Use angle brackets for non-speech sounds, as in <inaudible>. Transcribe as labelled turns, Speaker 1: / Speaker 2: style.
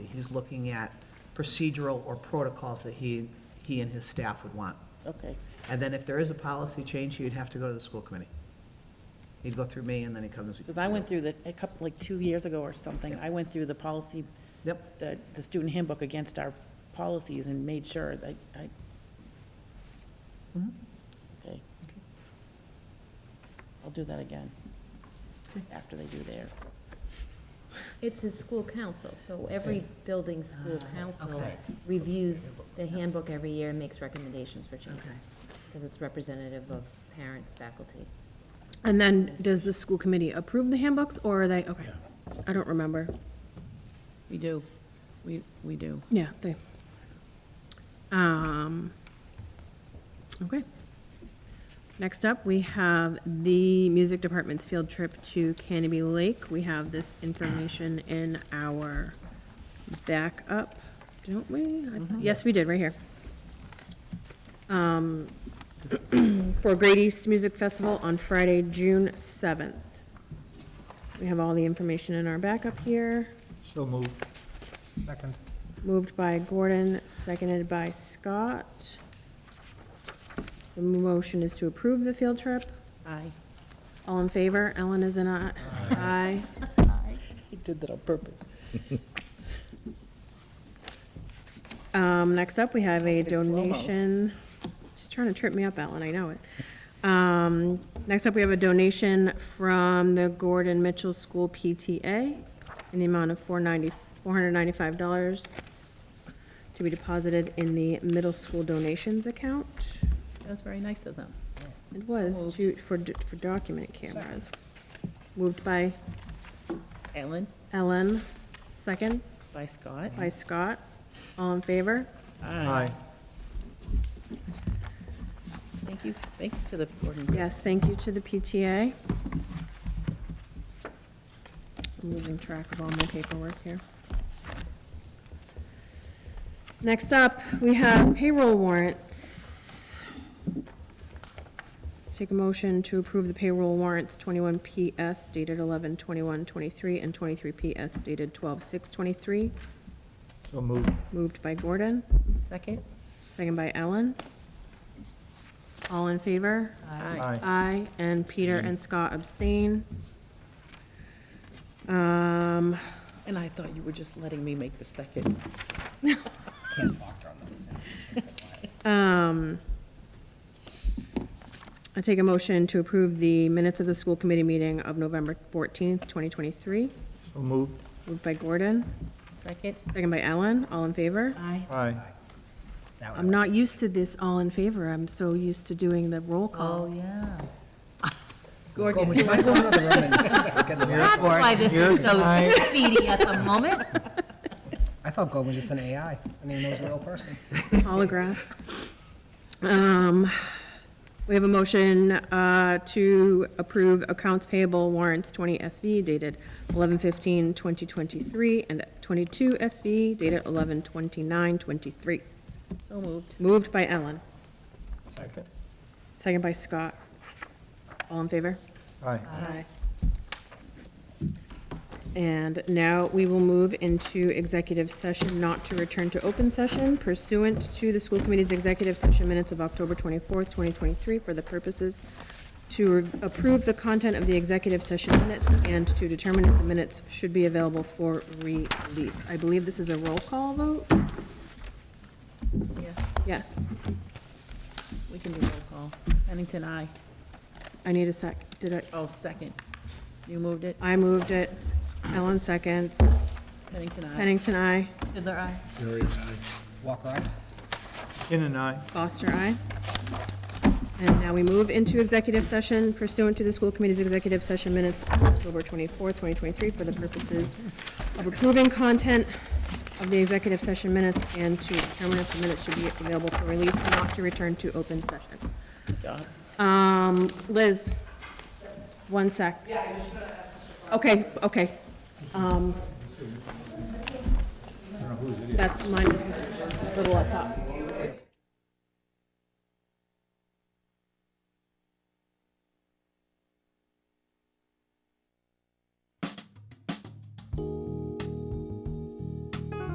Speaker 1: he's looking at procedural or protocols that he, he and his staff would want.
Speaker 2: Okay,
Speaker 1: And then if there is a policy change, he'd have to go to the school committee. He'd go through me, and then he comes.
Speaker 2: because I went through the, a couple, like two years ago or something, I went through the policy,
Speaker 1: Yep,
Speaker 2: the, the student handbook against our policies and made sure that I.
Speaker 1: Mhm.
Speaker 2: Okay. I'll do that again, after they do theirs.
Speaker 3: It's his school council, so every building school council
Speaker 1: Ah, okay.
Speaker 3: reviews the handbook every year and makes recommendations for changes.
Speaker 1: Okay.
Speaker 3: Because it's representative of parents, faculty.
Speaker 4: And then, does the school committee approve the handbooks, or are they, okay, I don't remember.
Speaker 5: We do, we, we do.
Speaker 4: Yeah, they. Um, okay. Next up, we have the music department's field trip to Canopy Lake. We have this information in our backup, don't we? I thought- Yes, we did, right here. Um, <clears throat> for Great East Music Festival on Friday, June seventh. We have all the information in our backup here.
Speaker 6: So moved. Second.
Speaker 4: Moved by Gordon, seconded by Scott. The motion is to approve the field trip.
Speaker 2: Aye.
Speaker 4: All in favor? Ellen is an aye. Aye.
Speaker 2: He did that on purpose.
Speaker 4: Um, next up, we have a
Speaker 2: It's slow-mo.
Speaker 4: donation. She's trying to trip me up, Ellen, I know it. Um, next up, we have a donation from the Gordon Mitchell School PTA in the amount of four ninety, four hundred ninety-five dollars to be deposited in the middle school donations account.
Speaker 5: That was very nice of them.
Speaker 4: It was
Speaker 5: Moved.
Speaker 4: to, for, d- for document cameras. Moved by
Speaker 2: Ellen,
Speaker 4: Ellen, second
Speaker 2: by Scott.
Speaker 4: by Scott. All in favor?
Speaker 6: Aye.
Speaker 2: Thank you, thank you to the board. and-
Speaker 4: Yes, thank you to the PTA. I'm losing track of all my paperwork here. Next up, we have payroll warrants. Take a motion to approve the payroll warrants 21 PS dated 11 23 and 23 PS dated 12 23
Speaker 6: So moved.
Speaker 4: Moved by Gordon,
Speaker 2: Second?
Speaker 4: second by Ellen. All in favor?
Speaker 6: Aye.
Speaker 4: Aye, and Peter and Scott abstain. Um,
Speaker 2: And I thought you were just letting me make the second.
Speaker 4: I take a motion to approve the minutes of the school committee meeting of November 14th, 2023.
Speaker 6: So moved.
Speaker 4: Moved by Gordon,
Speaker 2: Second?
Speaker 4: second by Ellen, all in favor?
Speaker 5: Aye.
Speaker 6: Aye.
Speaker 4: I'm not used to this all in favor, I'm so used to doing the roll call.
Speaker 5: yeah.
Speaker 2: Gordon,
Speaker 5: That's why this is so
Speaker 6: You're-
Speaker 5: speedy at the moment.
Speaker 7: I thought Gold was just an AI. I didn't even know it was a real person.
Speaker 4: Holograph. Um, We have a motion uh, to approve accounts payable warrants 20 SV dated 11/15/2023 and 22 SV dated 11/29/23.
Speaker 2: so moved.
Speaker 4: Moved by Ellen,
Speaker 6: Second.
Speaker 4: second by Scott. All in favor?
Speaker 6: Aye.
Speaker 4: Aye. And now we will move into executive session, not to return to open session pursuant to the school committee's executive session minutes of October 24th, 2023, for the purposes to re- approve the content of the executive session minutes and to determine if the minutes should be available for release. I believe this is a roll call vote?
Speaker 2: Yes.
Speaker 4: Yes.
Speaker 2: We can do roll call. Pennington, aye.
Speaker 4: I need a sec. Did I?
Speaker 2: Oh, second. You moved it?
Speaker 4: I moved it. Ellen seconds.
Speaker 2: Pennington, aye.
Speaker 4: Pennington, aye.
Speaker 5: Fiddler, aye.
Speaker 7: Walker, aye?
Speaker 6: In and aye.
Speaker 4: Foster, aye. And now we move into executive session pursuant to the school committee's executive session minutes of October 24, 2023, for the purposes of approving content of the executive session minutes and to determine if the minutes should be available for release, not to return to open session.
Speaker 2: Good job.
Speaker 4: Um, Liz, one sec. Yeah, I just gonna ask. Okay, okay. Um, That's mine, little up top.